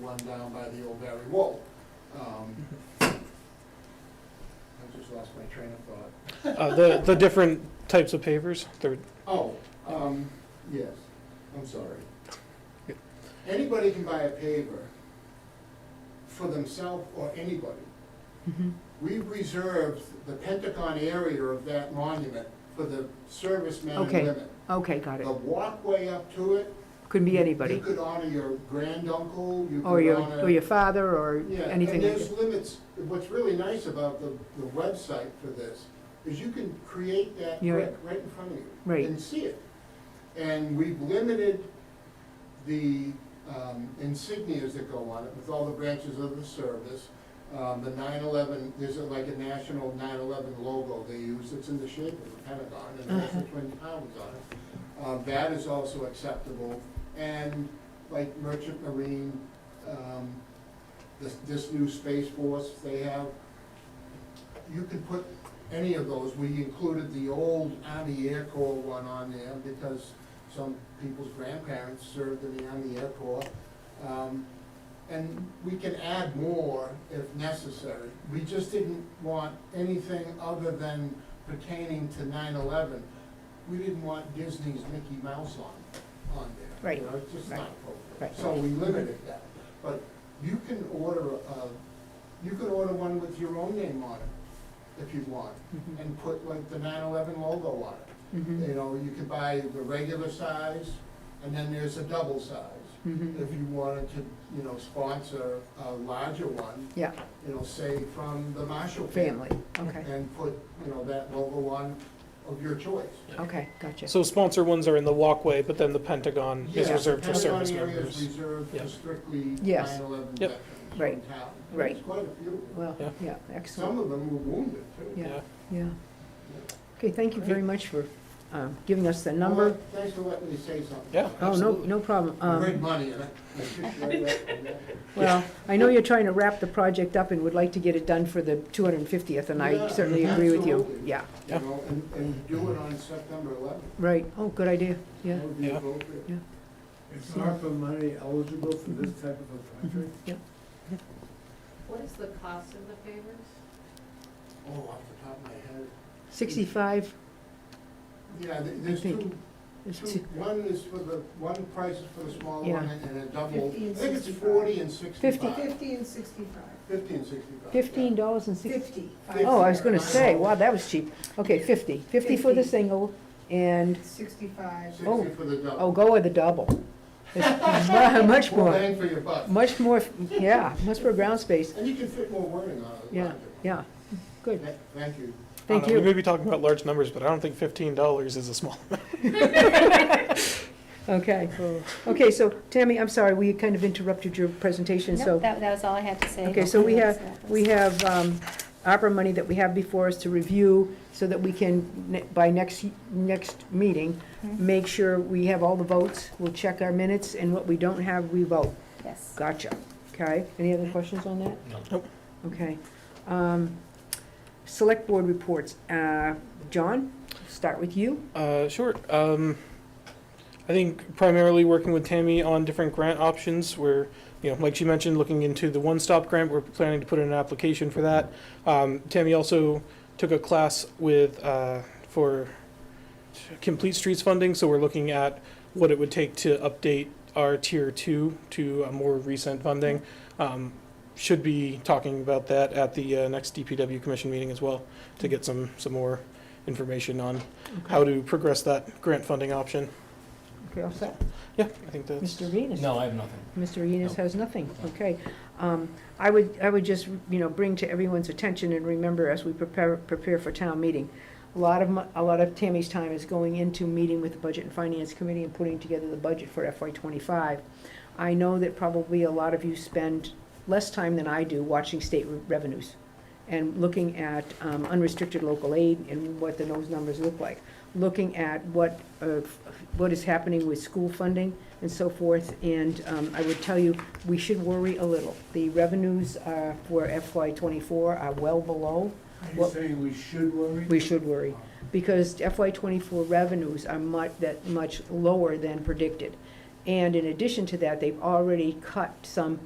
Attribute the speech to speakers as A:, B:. A: run down by the old Barry Wall. Um, I just lost my train of thought.
B: Uh, the, the different types of pavers, they're,
A: Oh, um, yes, I'm sorry. Anybody can buy a paver for themselves or anybody.
C: Mm-hmm.
A: We reserved the Pentagon area of that monument for the servicemen and
C: Okay.
A: women.
C: Okay, got it.
A: The walkway up to it.
C: Could be
A: You
C: anybody,
A: could honor your granduncle, you could honor.
C: or your, or your father, or
A: Yeah,
C: anything
A: and
C: like
A: there's
C: that.
A: limits, what's really nice about the, the website for this is you can create that
C: You're
A: brick right in front of you.
C: Right.
A: And see it. And we've limited the um, insignias that go on it with all the branches of the service. Um, The nine eleven, there's a- like a national nine eleven logo they use, it's in the shape of the Pentagon and it has the twin towers on it. Um, That is also acceptable. And like Merchant Marine, um, this, this new Space Force they have, you can put any of those, we included the old Army Air Corps one on there because some people's grandparents served in the Army Air Corps. Um, And we can add more if necessary. We just didn't want anything other than pertaining to 9/11. We didn't want Disney's Mickey Mouse on, on there.
C: Right,
A: You know, it's just not appropriate.
C: right.
A: So we limited that. But you can order, uh, you can order one with your own name on it if you want,
C: Mhm.
A: and put like the 9/11 logo on it.
C: Mhm.
A: You know, you could buy the regular size, and then there's a double size.
C: Mhm.
A: If you wanted to, you know, sponsor a larger one,
C: Yeah,
A: you know, say from the Marshall
C: family,
A: family.
C: okay,
A: And put, you know, that logo on of your choice.
C: okay, gotcha.
B: so sponsor ones are in the walkway, but then the Pentagon is
A: Yeah,
B: reserved for
A: Pentagon
B: service
A: area
B: members.
A: is reserved
B: Yeah.
A: for strictly
C: Yes.
A: 9/11
B: Yep.
A: veterans from
C: Right.
A: town. And
C: Right.
A: There's quite a few.
C: Well,
B: Yeah.
C: yeah,
A: Some
C: excellent,
A: of them were wounded too.
C: Yeah.
B: Yeah,
C: yeah. Okay, thank you very much for um, giving us the number.
A: Well, Thanks for letting me say something.
B: yeah,
C: Oh, no,
B: absolutely.
C: no problem.
A: Great
C: Um,
A: money, and I I appreciate uh, that.
C: Well, I know you're trying to wrap the project up and would like to get it done for the 250th, and I
A: Yeah,
C: certainly agree with you.
A: absolutely.
C: Yeah,
A: You know, and, and do it on September eleventh.
C: right, oh, good idea, yeah.
A: That would be
B: Yeah.
A: appropriate.
D: Is ARPA money eligible for this type of a project?
E: What is the cost of the favors?
A: Oh, off the top of my head.
C: 65
A: Yeah, th- there's
C: think
A: two,
C: is
A: two,
C: two-
A: one is for the, one price is for the small
C: Yeah.
A: one and and a double.
F: Fifty
A: I
F: and
A: think it's
F: 65.
A: forty and sixty-five.
F: Fifty and sixty-five.
A: Fifty and sixty-five. yeah.
C: $15 and 60
F: Fifty.
C: Oh, I was gonna
A: Fifty.
C: say, wow, that was cheap. Okay, 50, 50 for the
F: Fifty.
C: single, and,
F: Sixty-five.
C: Oh.
A: Sixty for the
C: oh,
A: double.
C: go with the double. It's mu- Much
A: More
C: more,
A: bang for your buck.
C: much more, yeah, much more ground space,
A: And you can fit more wording on it.
C: yeah, yeah, good,
A: Thank- Thank you.
C: thank
B: I don't know, We
C: you.
B: may be talking about large numbers, but I don't think fifteen dollars is a small.
C: Okay, okay, so Tammy, I'm sorry, we kind of interrupted your presentation, so.
G: Nope, that, that was all I had to say.
C: Okay, so we have-
G: That was-
C: We have um, ARPA money that we have before us to review so that we can, ne- by next, next meeting,
G: Mhm.
C: make sure we have all the votes, we'll check our minutes, and what we don't have, we vote.
G: Yes.
C: Gotcha. Okay, any other questions on that?
B: Nope.
C: Okay. Um, Select board reports. Uh, John, start with you.
B: Uh, sure. Um, I think primarily working with Tammy on different grant options. We're, you know, like she mentioned, looking into the One Stop Grant. We're planning to put in an application for that. Um, Tammy also took a class with uh, for Complete Streets funding, so we're looking at what it would take to update our Tier Two to a more recent funding. Um, should be talking about that at the uh, next DPW commission meeting as well to get some some more information on how to progress that grant funding option.
C: Okay, all set.
B: Yeah, I think that's,
C: Mr. Venus?
H: No, I have nothing.
C: Mr. Enos has nothing, okay. Um, I would, I would just, you know, bring to everyone's attention and remember as we prepare, prepare for town meeting, a lot of, mu- a lot of Tammy's time is going into meeting with the Budget and Finance Committee and putting together the budget for FY twenty-five. I know that probably a lot of you spend less time than I do watching state re- revenues and looking at um, unrestricted local aid and what the those numbers look like, looking at what, uh, what is happening with school funding and so forth. And um, I would tell you, we should worry a little. The revenues uh, for FY '24 are well below.
D: Are you
C: Well-
D: saying we should worry?
C: We should worry, because FY '24 revenues are much, that much lower than predicted. And in addition to that, they've already cut some